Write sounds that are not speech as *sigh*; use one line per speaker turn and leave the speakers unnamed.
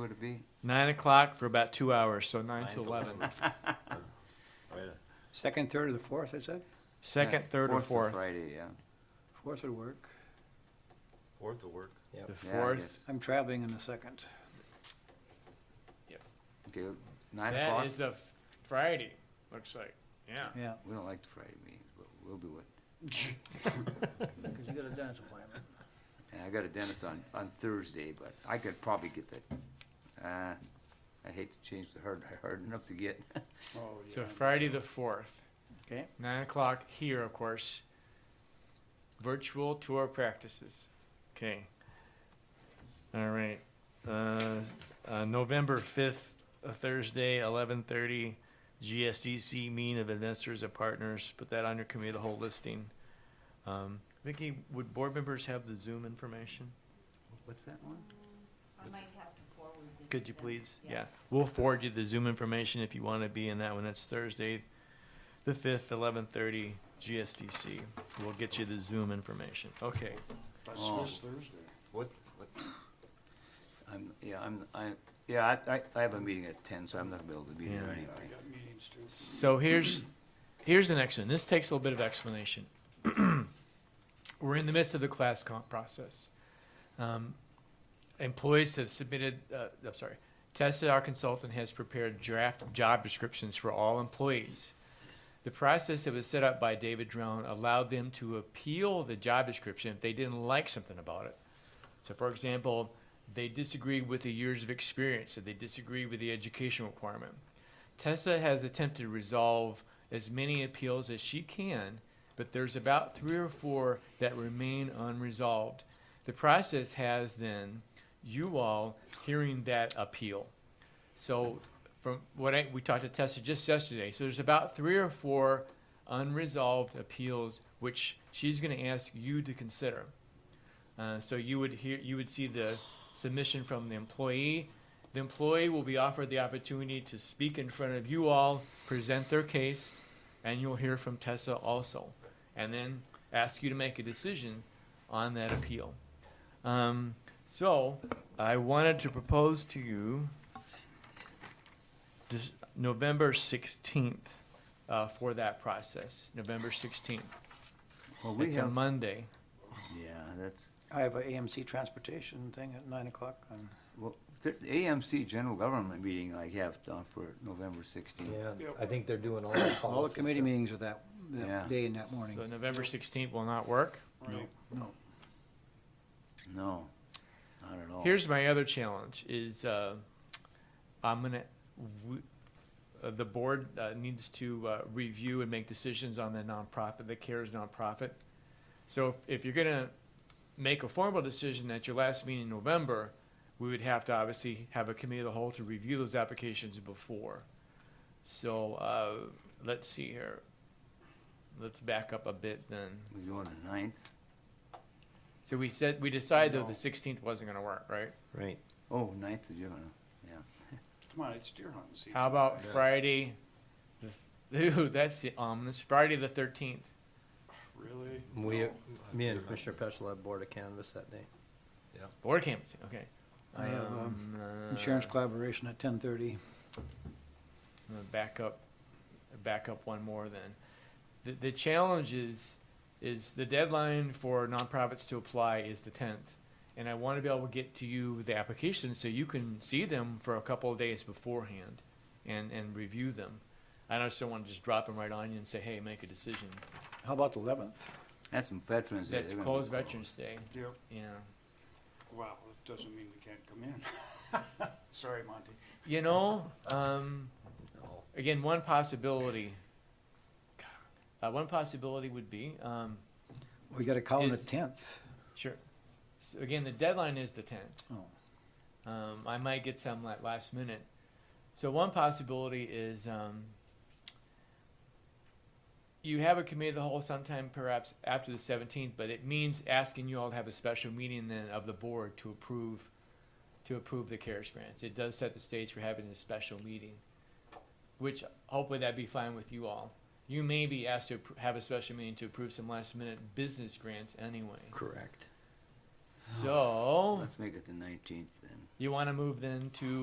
would be?
Nine o'clock for about two hours, so nine to eleven.
Second, third, or the fourth, I said?
*laughs* Second, third, or
Fourth's a
fourth.
Friday, yeah.
Fourth would work.
Fourth will work.
The
Yeah, I
fourth.
guess.
I'm traveling on the second.
Okay, nine
That
o'clock?
is a Friday, looks like, yeah.
Yeah,
We don't like the Friday meetings, but we'll do it.
because you got a dentist appointment.
And I got a dentist on, on Thursday, but I could probably get that. Uh, I hate to change the hard, hard enough to get.
Oh,
So Friday the fourth,
Okay,
nine o'clock here, of course. Virtual tour practices.
Okay. All right. Uh, uh, November fifth, Thursday, eleven thirty, GSDC mean of investors and partners. Put that on your committee, of the whole listing. Um, Vicky, would board members have the Zoom information?
What's that one?
I might have to forward this.
Could you
to-
please? Yeah, we'll forward you the Zoom information if you want to be in that one. That's Thursday, the fifth, eleven thirty, GSDC. We'll get you the Zoom information. Okay.
Um,
Oh.
What, what,
I'm, yeah, I'm, I, yeah, I, I, I have a meeting at ten, so I'm not gonna be able to be there
Yeah.
anyway.
So here's, here's the next one. This takes a little bit of explanation. *clears throat* We're in the midst of the class comp process. Um, Employees have submitted, uh, I'm sorry, Tessa, our consultant, has prepared draft job descriptions for all employees. The process that was set up by David Drone allowed them to appeal the job description if they didn't like something about it. So for example, they disagree with the years of experience, or they disagree with the education requirement. Tessa has attempted to resolve as many appeals as she can, but there's about three or four that remain unresolved. The process has then you all hearing that appeal. So from what I, we talked to Tessa just yesterday, so there's about three or four unresolved appeals which she's going to ask you to consider. Uh, so you would hear, you would see the submission from the employee. The employee will be offered the opportunity to speak in front of you all, present their case, and you'll hear from Tessa also, and then ask you to make a decision on that appeal. Um, so I wanted to propose to you this November sixteenth uh, for that process. November sixteenth.
Well, we
It's a
have,
Monday.
yeah, that's,
I have a AMC transportation thing at nine o'clock on,
well, there's the AMC General Government meeting I have done for November sixteenth.
yeah, I think they're doing all
Oh,
the
all the committee
meetings.
meetings are that,
Yeah.
that day and that morning.
So November sixteenth will not work.
No, not at all.
Here's my other challenge is, uh, I'm gonna, w- uh, the board, uh, needs to, uh, review and make decisions on the nonprofit, the CARES nonprofit. So if, if you're gonna make a formal decision at your last meeting in November, we would have to obviously have a committee of the whole to review those applications before. So, uh, let's see here. Let's back up a bit then.
We go on the ninth?
So we said, we decided though the sixteenth wasn't gonna work, right?
Right.
Oh, ninth of June, yeah.
Come on, it's deer hunting season.
How about Friday? the- *laughs* Ooh, that's the ominous. Friday the thirteenth.
Really?
We,
No.
me and Commissioner Peschel have board of canvas that day.
Board canvassing. Okay.
I have, um,
Um,
Insurance
uh,
collaboration at ten thirty.
I'm gonna back up, back up one more then. The, the challenge is, is the deadline for nonprofits to apply is the tenth. And I wanna be able to get to you the applications so you can see them for a couple of days beforehand and, and review them. I don't just wanna just drop them right on you and say, hey, make a decision.
How about the eleventh?
That's some Veterans Day.
That's
they're gonna be
closed Veterans Day,
Yep,
yeah.
well, it doesn't mean we can't come in. *laughs* Sorry, Monty.
You know, um,
No.
again, one possibility. Uh, one possibility would be, um,
We got a call on the
Is-
tenth.
sure. So again, the deadline is the tenth.
Oh.
Um, I might get some like last minute. So one possibility is, um, you have a committee of the whole sometime perhaps after the seventeenth, but it means asking you all to have a special meeting then of the board to approve, to approve the CARES grants. It does set the stage for having a special meeting, which hopefully that'd be fine with you all. You may be asked to appro- have a special meeting to approve some last minute business grants anyway.
Correct.
So,
Let's make it the nineteenth then.
you wanna move then to